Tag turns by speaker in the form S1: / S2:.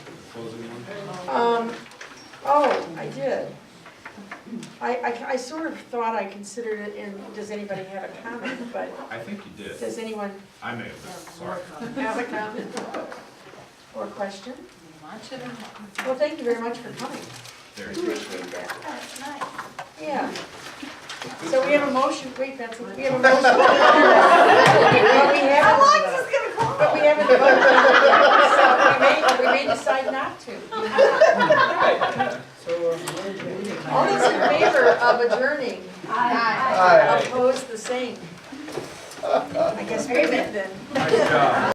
S1: Um, oh, I, I, I sort of thought I considered it in, does anybody have a comment, but
S2: I think you did.
S1: does anyone
S2: I may have, done, sorry.
S1: have a comment or question?
S3: Lunch and-
S1: Well, thank you very much for coming.
S2: There you go.
S1: Appreciate that.
S3: Oh, it's nice.
S1: Yeah. So we have a motion, wait, that's, we have a motion. But we haven't-
S3: How long is this gonna go?
S1: But we haven't voted, so we may, we may decide not to. All those in favor of adjourning,
S3: Hi.
S4: Aye.
S1: oppose the same. I guess we did then.
S2: Nice job.